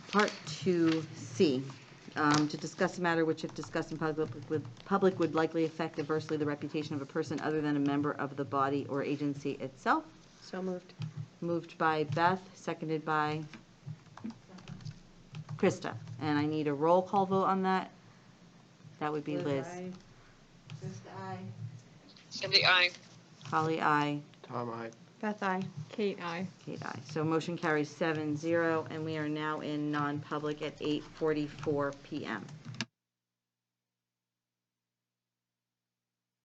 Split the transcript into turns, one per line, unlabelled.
Part 2C, um, to discuss a matter which if discussed in public, would- public would likely affect adversely the reputation of a person other than a member of the body or agency itself.
So moved.
Moved by Beth, seconded by Krista. And I need a roll call vote on that. That would be Liz.
Cindy, I.
Holly, aye.
Tom, I.
Beth, I.
Kate, I.
Kate, aye. So motion carries seven zero, and we are now in non-public at 8:44 PM.